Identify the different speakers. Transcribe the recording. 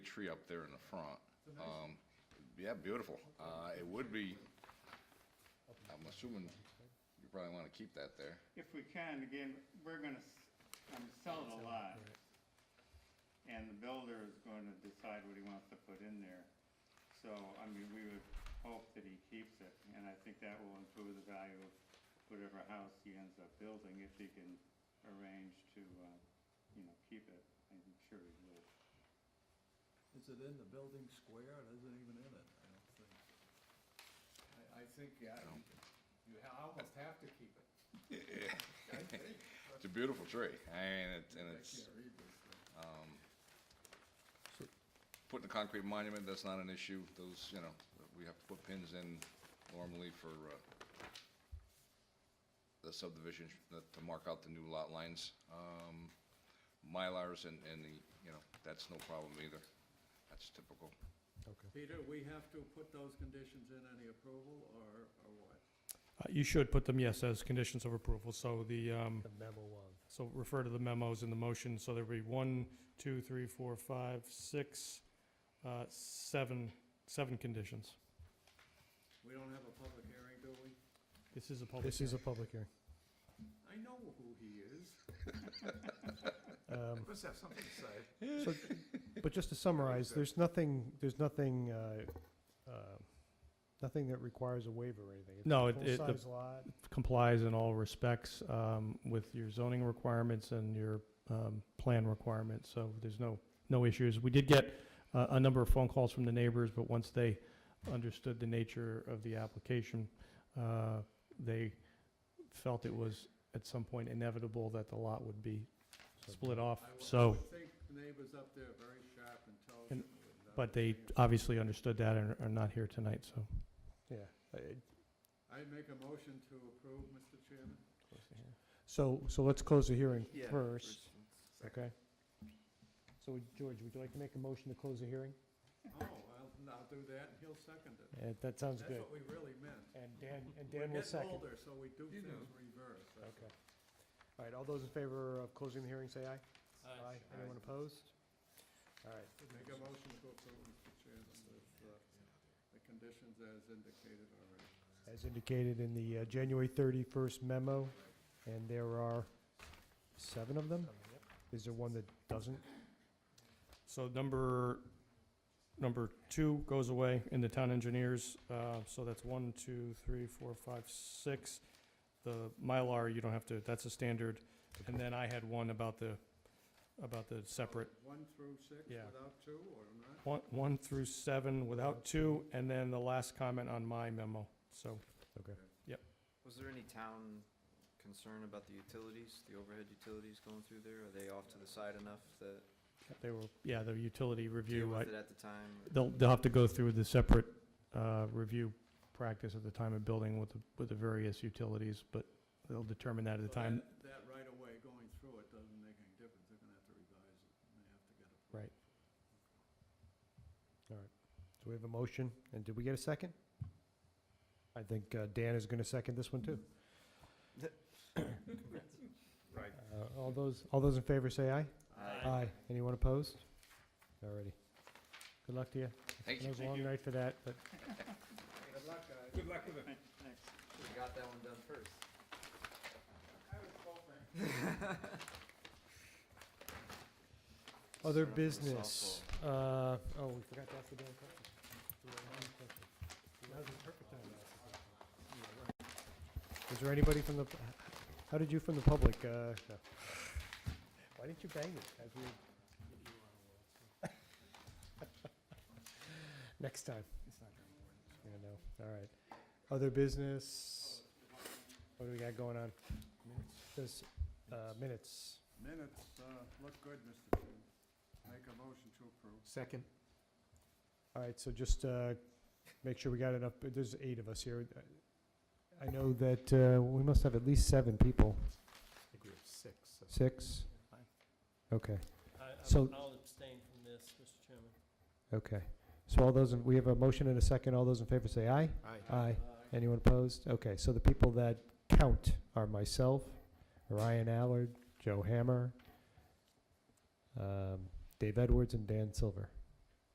Speaker 1: tree up there in the front. Um, Yeah, beautiful. Uh, It would be, I'm assuming you probably want to keep that there.
Speaker 2: If we can, again, we're gonna, s- um, sell the lot. And the builder is gonna decide what he wants to put in there. So, I mean, we would hope that he keeps it, and I think that will improve the value of whatever house he ends up building, if he can arrange to, uh, you know, keep it. I'm sure he will.
Speaker 3: Is it in the building square? It isn't even in it, I don't think.
Speaker 4: I, I think, yeah, you- you ha- almost have to keep it. I think,
Speaker 1: It's a beautiful tree, and it's, and
Speaker 4: I
Speaker 1: it's,
Speaker 4: can't read this thing.
Speaker 1: putting a concrete monument, that's not an issue. Those, you know, we have to put pins in normally for uh, the subdivision, uh, to mark out the new lot lines. Um, Mylars and, and the, you know, that's no problem either. That's typical.
Speaker 5: Okay.
Speaker 3: Peter, we have to put those conditions in any approval or, or what?
Speaker 6: Uh, You should put them, yes, as conditions of approval, so the, um,
Speaker 5: The memo of,
Speaker 6: so refer to the memos in the motion, so there'll be one, two, three, four, five, six, uh, seven, seven conditions.
Speaker 3: We don't have a public hearing, do we?
Speaker 6: This is a public
Speaker 5: this is a
Speaker 6: hearing.
Speaker 5: public hearing.
Speaker 3: I know who he is.
Speaker 5: Um,
Speaker 4: Must have something to say.
Speaker 5: so- But just to summarize, there's nothing, there's nothing, uh, uh, nothing that requires a waiver or anything. It's a
Speaker 6: No, it- it- the-
Speaker 5: Full-size lot,
Speaker 6: Complies in all respects um, with your zoning requirements and your um, plan requirements, so there's no, no issues. We did get uh, a number of phone calls from the neighbors, but once they understood the nature of the application, uh, they felt it was at some point inevitable that the lot would be split
Speaker 5: Uh,
Speaker 3: I would-
Speaker 6: off,
Speaker 3: I
Speaker 6: so,
Speaker 3: would think the neighbors up there are very sharp, intelligent. would not
Speaker 6: but they
Speaker 3: be-
Speaker 5: uh,
Speaker 6: obviously understood that and are not here tonight, so.
Speaker 5: yeah. Uh,
Speaker 3: I make a motion to approve, Mr. Chairman.
Speaker 5: So, so let's close the hearing first,
Speaker 3: Oh,
Speaker 5: okay? So George, would you like to make a motion to close the hearing?
Speaker 3: Oh, well, I'll do that, and he'll second it.
Speaker 5: Uh, That sounds
Speaker 3: That's
Speaker 5: good.
Speaker 3: what we really meant.
Speaker 5: And Dan, and
Speaker 3: We're
Speaker 5: Dan will
Speaker 3: getting
Speaker 5: second.
Speaker 3: older, so we do
Speaker 4: You
Speaker 3: things
Speaker 4: know.
Speaker 3: reverse. that's
Speaker 5: Okay. All right, all those in favor of closing the hearing, say aye. Aye. Anyone opposed? All right,
Speaker 3: all. Make a motion to approve, Mr. Chairman, with uh, the conditions as indicated already.
Speaker 5: as indicated in the uh, January 31st memo, and there are seven of them? Is there one that doesn't?
Speaker 6: So number, number two goes away in the town engineers, uh, so that's one, two, three, four, five, six. The Mylar, you don't have to, that's a standard, and then I had one about the, about the separate,
Speaker 3: One through six
Speaker 6: Yeah.
Speaker 3: without two or not?
Speaker 6: one, one through seven without two, and then the last comment on my memo, so.
Speaker 5: Okay.
Speaker 7: Was there any town concern about the utilities, the overhead utilities going through there? Are they off to the side enough that,
Speaker 6: They were, yeah, the utility
Speaker 7: deal
Speaker 6: review,
Speaker 7: with
Speaker 6: I-
Speaker 7: it at the time?
Speaker 6: they'll, they'll have to go through the separate, uh, review practice at the time of building with, the with the various utilities, but they'll determine that at the
Speaker 3: So
Speaker 6: time.
Speaker 3: that- That right of way going through it doesn't make any difference. They're gonna have to revise it. and They have to get
Speaker 6: Right.
Speaker 3: it.
Speaker 5: All right. So we have a motion, and did we get a second? I think uh, Dan is going to second this one, too.
Speaker 4: Right.
Speaker 5: Uh, All those, all those in favor, say aye.
Speaker 7: Aye.
Speaker 5: Aye. Anyone opposed? All righty. Good luck to you.
Speaker 1: Thank
Speaker 5: It
Speaker 1: you.
Speaker 5: was a long night for that, but
Speaker 3: Good luck, guys.
Speaker 4: Good luck with it.
Speaker 2: Thanks.
Speaker 7: We got that one done first.
Speaker 3: I was hoping.
Speaker 7: Start
Speaker 5: Other
Speaker 7: off with a
Speaker 5: business, uh, oh, we forgot to ask the damn question. Is there anybody from the, how did you from the public, uh, no. Why didn't you bang it as we? Next time. Yeah, no, all right. Other business, what do we got going on? This, uh, minutes.
Speaker 3: Minutes, uh, look good, Mr. Chairman. Make a motion to approve.
Speaker 5: Second. All right, so just uh, make sure we got enough, there's eight of us here. I know that uh, we must have at least seven people.
Speaker 8: I think we have six.
Speaker 5: Six?
Speaker 8: Five.
Speaker 5: Okay, So-
Speaker 8: I'll abstain from this, Mr. Chairman.
Speaker 5: okay. So all those, in- we have a motion and a second. All those in favor say aye.
Speaker 8: Aye.
Speaker 5: Aye.
Speaker 3: Aye.
Speaker 5: Anyone opposed? Okay, so the people that count are myself, Ryan Allard, Joe Hammer, um, Dave Edwards, and Dan Silver.